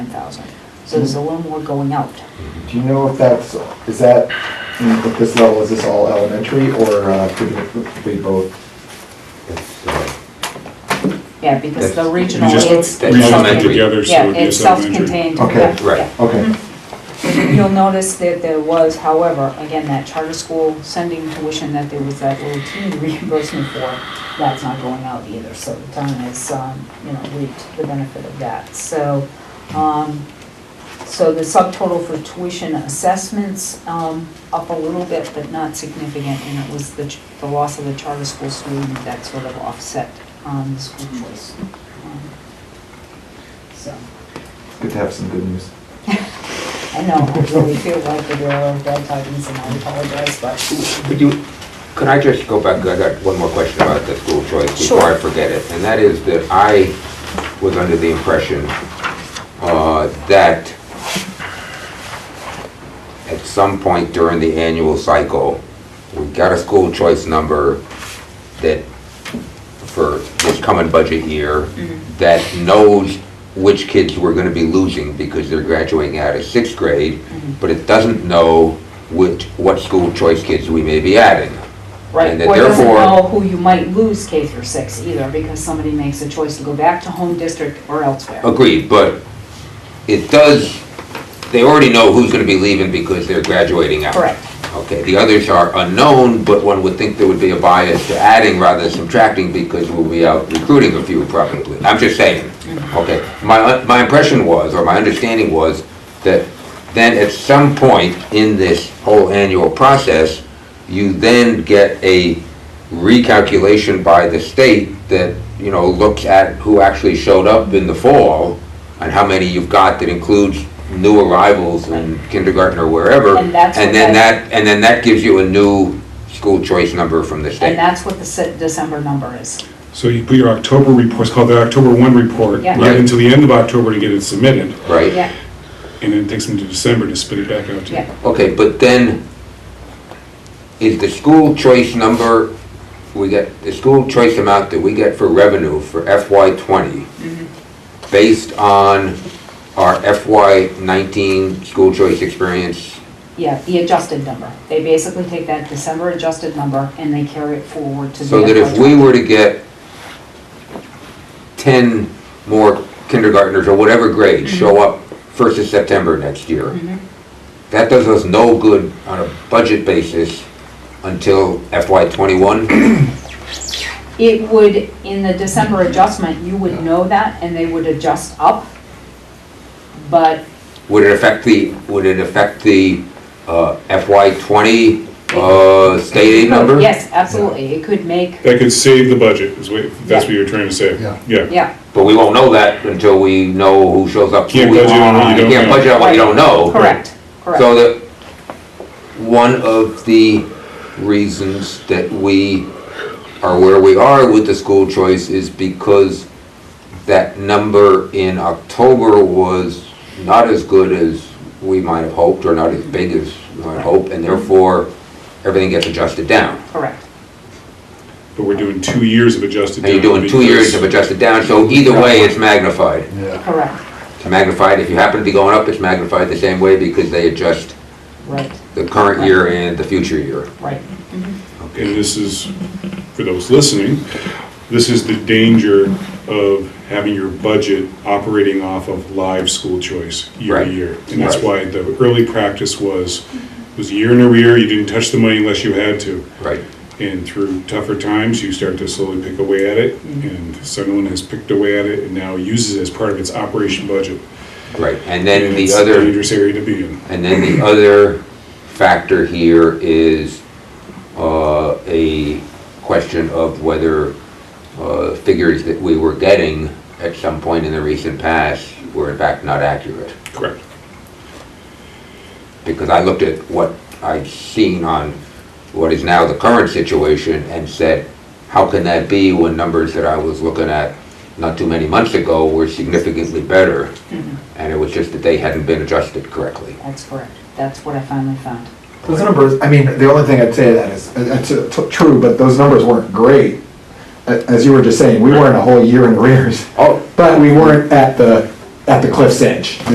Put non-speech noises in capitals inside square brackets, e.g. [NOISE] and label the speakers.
Speaker 1: thousand. So there's a little more going out.
Speaker 2: Do you know if that's, is that, at this level, is this all elementary or uh, could it be both?
Speaker 3: It's, uh,
Speaker 1: Yeah, because the
Speaker 3: That's-
Speaker 1: regional,
Speaker 4: You just
Speaker 1: it's.
Speaker 3: regional
Speaker 1: self-
Speaker 3: it
Speaker 4: together, so
Speaker 1: yeah,
Speaker 4: it'd be
Speaker 1: it's
Speaker 4: self-contained.
Speaker 1: self-contained,
Speaker 2: Okay,
Speaker 1: yeah,
Speaker 3: right.
Speaker 1: yeah.
Speaker 2: Okay,
Speaker 1: You'll notice that there was, however, again, that charter school sending tuition that there was that little teeny [LAUGHS] reimbursement for, that's not going out either, so the town has, um, you know, reaped the benefit of that. So, um, so the subtotal for tuition assessments, um, up a little bit, but not significant, and it was the, ch- the loss of the charter school student that sort of offset, um, the school choice. Um, So.
Speaker 2: good to have some good news.
Speaker 1: I know, I really feel like the girl of bad tidings and I apologize, but
Speaker 3: Would you, could I just go back, I got one more question about the school choice before I
Speaker 1: Sure.
Speaker 3: forget it. And that is that I was under the impression uh, that at some point during the annual cycle, we got a school choice number that for this coming budget year, that knows which kids we're gonna be losing because they're graduating out of sixth grade, but it doesn't know which, what school choice kids we may be adding.
Speaker 1: Right,
Speaker 3: And that
Speaker 1: or doesn't
Speaker 3: therefore-
Speaker 1: know who you might lose K through six either, because somebody makes a choice to go back to home district or elsewhere.
Speaker 3: Agreed, but it does, they already know who's gonna be leaving because they're graduating out.
Speaker 1: Correct.
Speaker 3: Okay, the others are unknown, but one would think there would be a bias to adding rather than subtracting because we'll be out recruiting a few probably. I'm just saying, okay? My, my impression was, or my understanding was, that then at some point in this whole annual process, you then get a recalculation by the state that, you know, looks at who actually showed up in the fall and how many you've got that includes new arrivals in kindergarten or wherever.
Speaker 1: And that's what
Speaker 3: then
Speaker 1: that-
Speaker 3: that and then that gives you a new school choice number from the
Speaker 1: And
Speaker 3: state.
Speaker 1: that's what the Se- December number is.
Speaker 4: So you put your October report, it's called the October 1 report,
Speaker 1: Yeah.
Speaker 4: right until the end of October to get it submitted,
Speaker 3: Right?
Speaker 1: Yeah,
Speaker 4: and then it takes them to December to spit it back out to you.
Speaker 1: yeah,
Speaker 3: Okay, but then, is the school choice number, we get, the school choice amount that we get for revenue for FY twenty, based on our FY nineteen school choice experience?
Speaker 1: yeah, the adjusted number. They basically take that December adjusted number and they carry it forward to the.
Speaker 3: So that if we
Speaker 1: FY20.
Speaker 3: were to get ten more kindergartners or whatever grade show up first of September next year,
Speaker 1: Mhm.
Speaker 3: That does us no good on a budget basis until FY twenty-one.
Speaker 1: It would, in the December adjustment, you would know that and they would adjust up. But
Speaker 3: Would it affect the, would it affect the uh, FY twenty uh, state aid number?
Speaker 1: Yes, absolutely. It could make,
Speaker 4: That could save the budget, is what, that's what you're trying to say.
Speaker 2: Yeah.
Speaker 4: Yeah.
Speaker 1: yeah,
Speaker 3: But we won't know that until we know who shows up.
Speaker 4: Can't budget on what you don't
Speaker 3: Can't
Speaker 4: know.
Speaker 3: budget on what you don't know.
Speaker 1: correct, correct.
Speaker 3: So that, one of the reasons that we are where we are with the school choice is because that number in October was not as good as we might have hoped, or not as big as we might hope, and therefore, everything gets adjusted down.
Speaker 1: Correct.
Speaker 4: But we're doing two years of adjusted.
Speaker 3: And you're
Speaker 4: down
Speaker 3: doing two years of
Speaker 4: because-
Speaker 3: adjusted down, so either way, it's magnified.
Speaker 2: Yeah.
Speaker 1: Correct,
Speaker 3: It's magnified, if you happen to be going up, it's magnified the same way because they adjust
Speaker 1: right,
Speaker 3: the current year and the future year.
Speaker 1: right.
Speaker 4: And this is, for those listening, this is the danger of having your budget operating off of live school choice year
Speaker 3: Right.
Speaker 4: to year. And that's why
Speaker 3: Right.
Speaker 4: the early practice was, was a year in arrear, you didn't touch the money unless you had to.
Speaker 3: Right.
Speaker 4: And through tougher times, you start to slowly pick away at it, and someone has picked away at it and now uses it as part of its operation budget.
Speaker 3: Right, and then the
Speaker 4: It's a
Speaker 3: other.
Speaker 4: Dangerous area to be in.
Speaker 3: And then the other factor here is uh, a question of whether uh, figures that we were getting at some point in the recent past were in fact not accurate.
Speaker 4: Correct.
Speaker 3: Because I looked at what I'd seen on what is now the current situation and said, how can that be when numbers that I was looking at not too many months ago were significantly better? And it was just that they hadn't been adjusted correctly.
Speaker 1: That's correct. That's what I finally found.
Speaker 2: Those numbers, I mean, the only thing I'd say to that is, that's uh, t- true, but those numbers weren't great. A- As you were just saying, we weren't a whole year in arrears,
Speaker 3: Oh,
Speaker 2: but we weren't at the, at the cliff's edge.